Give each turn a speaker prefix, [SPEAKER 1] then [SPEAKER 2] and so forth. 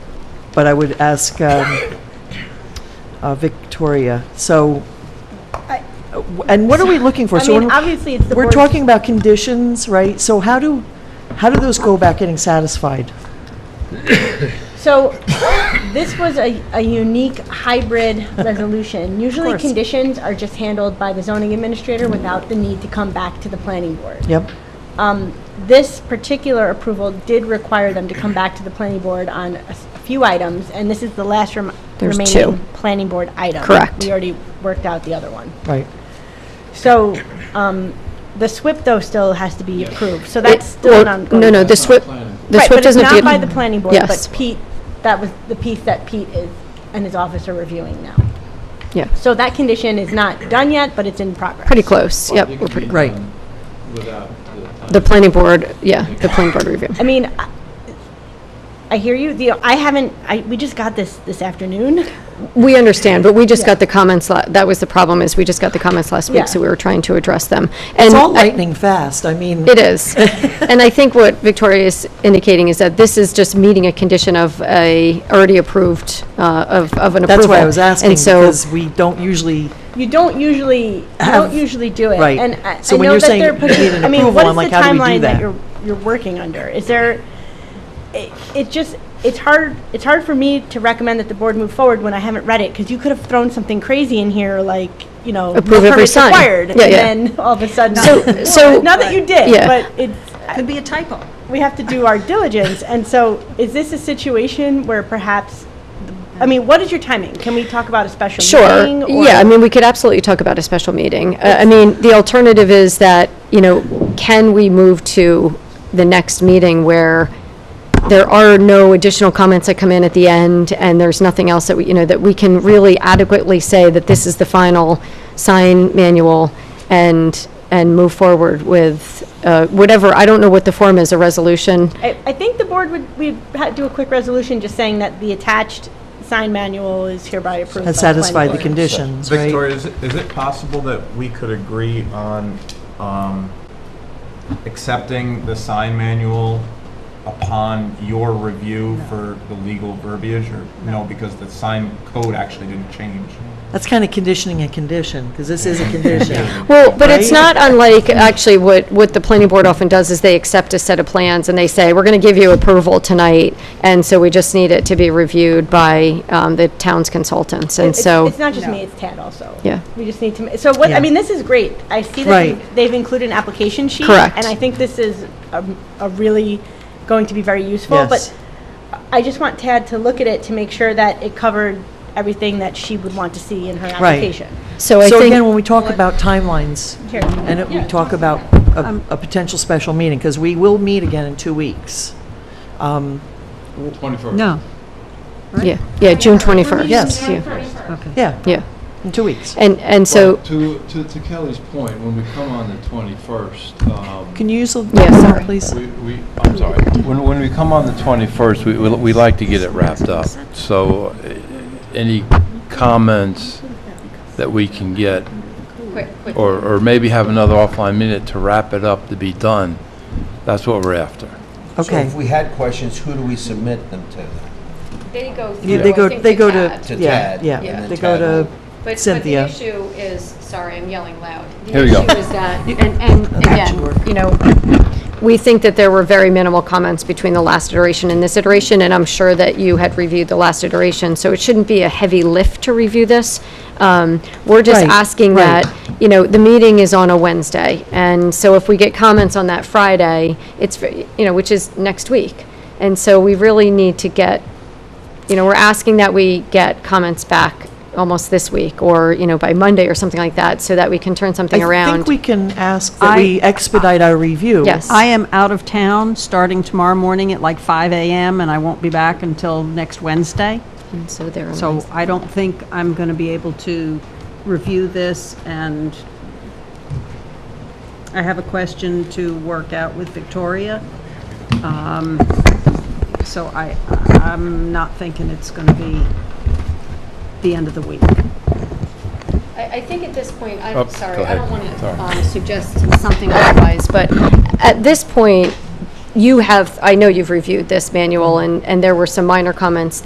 [SPEAKER 1] but I would ask um, uh, Victoria, so,
[SPEAKER 2] I-
[SPEAKER 1] and what are we looking for?
[SPEAKER 2] I
[SPEAKER 1] So
[SPEAKER 2] mean,
[SPEAKER 1] when-
[SPEAKER 2] obviously, it's the
[SPEAKER 1] We're
[SPEAKER 2] board's-
[SPEAKER 1] talking about conditions, right? So how do, how do those go about getting satisfied?
[SPEAKER 2] So this was a, a unique hybrid resolution. Usually
[SPEAKER 1] course.
[SPEAKER 2] conditions are just handled by the zoning administrator without the need to come back to the planning board.
[SPEAKER 1] Yep,
[SPEAKER 2] Um, this particular approval did require them to come back to the planning board on a s- a few items, and this is the last rem-
[SPEAKER 3] There's
[SPEAKER 2] remaining
[SPEAKER 3] two.
[SPEAKER 2] planning board item.
[SPEAKER 3] Correct.
[SPEAKER 2] We already worked out the other one.
[SPEAKER 1] right.
[SPEAKER 2] So, um, the SWIP though still has to be approved, so that's still
[SPEAKER 3] Well,
[SPEAKER 2] an ongoing.
[SPEAKER 3] No, no, the SWIP, the
[SPEAKER 2] Right,
[SPEAKER 3] SWIP
[SPEAKER 2] but it's
[SPEAKER 3] doesn't
[SPEAKER 2] not
[SPEAKER 3] deal.
[SPEAKER 2] by the planning board, but
[SPEAKER 3] Yes.
[SPEAKER 2] Pete, that was the piece that Pete is, and his office are reviewing now.
[SPEAKER 3] Yeah,
[SPEAKER 2] So that condition is not done yet, but it's in progress.
[SPEAKER 3] pretty
[SPEAKER 1] Oh,
[SPEAKER 3] close, yep.
[SPEAKER 4] It
[SPEAKER 3] we're
[SPEAKER 4] could
[SPEAKER 3] pretty-
[SPEAKER 4] be
[SPEAKER 1] Right.
[SPEAKER 4] done Without the.
[SPEAKER 3] The planning board, yeah, the planning board review.
[SPEAKER 2] I mean, I- I hear you, the, I haven't, I, we just got this this afternoon.
[SPEAKER 3] We understand, but we just got the comments, la- that was the problem, is we just got the comments last
[SPEAKER 2] Yeah.
[SPEAKER 3] week, so we were trying to address them.
[SPEAKER 1] It's
[SPEAKER 3] And
[SPEAKER 1] all
[SPEAKER 3] I-
[SPEAKER 1] lightning fast, I mean,
[SPEAKER 3] It is. And I think what Victoria is indicating is that this is just meeting a condition of a already approved, uh, of of an approval.
[SPEAKER 1] that's why I was asking,
[SPEAKER 3] And so,
[SPEAKER 1] because we don't usually,
[SPEAKER 2] You don't usually, you don't usually do it.
[SPEAKER 1] Right.
[SPEAKER 2] And I
[SPEAKER 1] So
[SPEAKER 2] I
[SPEAKER 1] when
[SPEAKER 2] know
[SPEAKER 1] you're
[SPEAKER 2] that
[SPEAKER 1] saying
[SPEAKER 2] they're
[SPEAKER 1] you
[SPEAKER 2] pushing,
[SPEAKER 1] need an
[SPEAKER 2] I mean,
[SPEAKER 1] approval,
[SPEAKER 2] what
[SPEAKER 1] I'm
[SPEAKER 2] is the
[SPEAKER 1] like, how do we do
[SPEAKER 2] timeline that
[SPEAKER 1] that?
[SPEAKER 2] you're, you're working under? Is there, it, it just, it's hard, it's hard for me to recommend that the board move forward when I haven't read it, because you could have thrown something crazy in here, like, you know, no
[SPEAKER 3] Approve every
[SPEAKER 2] permits
[SPEAKER 3] sign.
[SPEAKER 2] required.
[SPEAKER 3] Yeah, yeah.
[SPEAKER 2] And then all of a sudden,
[SPEAKER 3] So- so-
[SPEAKER 2] not that you did,
[SPEAKER 3] Yeah.
[SPEAKER 2] but it's,
[SPEAKER 5] Could be a typo.
[SPEAKER 2] we have to do our diligence. And so is this a situation where perhaps, the- I mean, what is your timing? Can we talk about a special
[SPEAKER 3] sure,
[SPEAKER 2] meeting? or-
[SPEAKER 3] yeah, I mean, we could absolutely talk about a special meeting. Uh, I mean, the alternative is that, you know, can we move to the next meeting where there are no additional comments that come in at the end, and there's nothing else that we, you know, that we can really adequately say that this is the final sign manual and, and move forward with uh, whatever, I don't know what the form is, a resolution?
[SPEAKER 2] I, I think the board would, we'd ha- do a quick resolution just saying that the attached sign manual is hereby approved.
[SPEAKER 1] that
[SPEAKER 2] by planning
[SPEAKER 1] satisfy the
[SPEAKER 2] board.
[SPEAKER 1] conditions, right?
[SPEAKER 6] Victoria, is it- is it possible that we could agree on um, accepting the sign manual upon your review for the legal verbiage, or no, because the sign code actually didn't change?
[SPEAKER 1] That's kind of conditioning a condition, because this is a condition.
[SPEAKER 3] Well, but it's
[SPEAKER 1] Right?
[SPEAKER 3] not unlike, actually, what, what the planning board often does is they accept a set of plans and they say, we're going to give you approval tonight, and so we just need it to be reviewed by um, the town's consultants, and
[SPEAKER 2] It's-
[SPEAKER 3] so,
[SPEAKER 2] It's not just me, it's Tad also.
[SPEAKER 3] Yeah.
[SPEAKER 2] We just need to, ma- so what,
[SPEAKER 1] Yeah.
[SPEAKER 2] I mean, this is great. I see
[SPEAKER 1] Right.
[SPEAKER 2] that they've included an application sheet.
[SPEAKER 3] Correct.
[SPEAKER 2] And I think this is a, a really, going to be very useful.
[SPEAKER 1] Yes,
[SPEAKER 2] But I just want Tad to look at it to make sure that it covered everything that she would want to see in her
[SPEAKER 1] Right.
[SPEAKER 2] application.
[SPEAKER 3] so I
[SPEAKER 1] so again, when
[SPEAKER 3] think,
[SPEAKER 1] we talk about timelines,
[SPEAKER 2] Here.
[SPEAKER 1] and it- we talk about a, a potential special meeting, because we will meet again in two weeks. Um,
[SPEAKER 4] Twenty-four.
[SPEAKER 5] No.
[SPEAKER 3] yeah, yeah, June 21st.
[SPEAKER 1] Yes.
[SPEAKER 3] yeah,
[SPEAKER 1] Yeah,
[SPEAKER 3] Yeah,
[SPEAKER 1] in two weeks.
[SPEAKER 3] and, and so,
[SPEAKER 4] To, to to Kelly's point, when we come on the twenty-first, um,
[SPEAKER 1] Can you use the
[SPEAKER 3] Yeah,
[SPEAKER 1] mic,
[SPEAKER 3] sorry.
[SPEAKER 1] please?
[SPEAKER 4] we, we, I'm sorry. When, when we come on the twenty-first, we, we we like to get it wrapped up. So uh, any comments that we can get, or, or maybe have another offline minute to wrap it up, to be done, that's what we're after.
[SPEAKER 7] So
[SPEAKER 1] Okay.
[SPEAKER 7] if we had questions, who do we submit them to?
[SPEAKER 3] They go
[SPEAKER 1] Yeah, They go, they go to,
[SPEAKER 7] To
[SPEAKER 1] yeah,
[SPEAKER 7] Tad,
[SPEAKER 1] yeah,
[SPEAKER 7] and
[SPEAKER 1] yeah,
[SPEAKER 7] then
[SPEAKER 1] they go
[SPEAKER 7] Tad
[SPEAKER 1] to
[SPEAKER 8] But, but the
[SPEAKER 1] Cynthia.
[SPEAKER 8] issue is, sorry, I'm yelling loud.
[SPEAKER 4] Here we go.
[SPEAKER 8] The issue is that, and, and again, you know,
[SPEAKER 3] we think that there were very minimal comments between the last iteration and this iteration, and I'm sure that you had reviewed the last iteration, so it shouldn't be a heavy lift to review this. Um, We're just
[SPEAKER 1] Right,
[SPEAKER 3] asking
[SPEAKER 1] right.
[SPEAKER 3] that, you know, the meeting is on a Wednesday, and so if we get comments on that Friday, it's, ve- you know, which is next week. And so we really need to get, you know, we're asking that we get comments back almost this week, or, you know, by Monday or something like that, so that we can turn something around.
[SPEAKER 1] I think we can ask that
[SPEAKER 5] I-
[SPEAKER 1] we expedite our review.
[SPEAKER 3] Yes.
[SPEAKER 5] I am out of town starting tomorrow morning at like 5 a.m., and I won't be back until next Wednesday.
[SPEAKER 3] And So there. are
[SPEAKER 5] So I don't think I'm going to be able to review this, and I have a question to work out with Victoria. Um, So I, I'm not thinking it's going to be the end of the week.
[SPEAKER 8] I, I think at this point,
[SPEAKER 4] Oh,
[SPEAKER 8] I'm sorry,
[SPEAKER 4] go
[SPEAKER 8] I don't
[SPEAKER 4] ahead.
[SPEAKER 8] want
[SPEAKER 4] Sorry.
[SPEAKER 8] to suggest
[SPEAKER 3] something otherwise, but at this point, you have, I know you've reviewed this manual, and, and there were some minor comments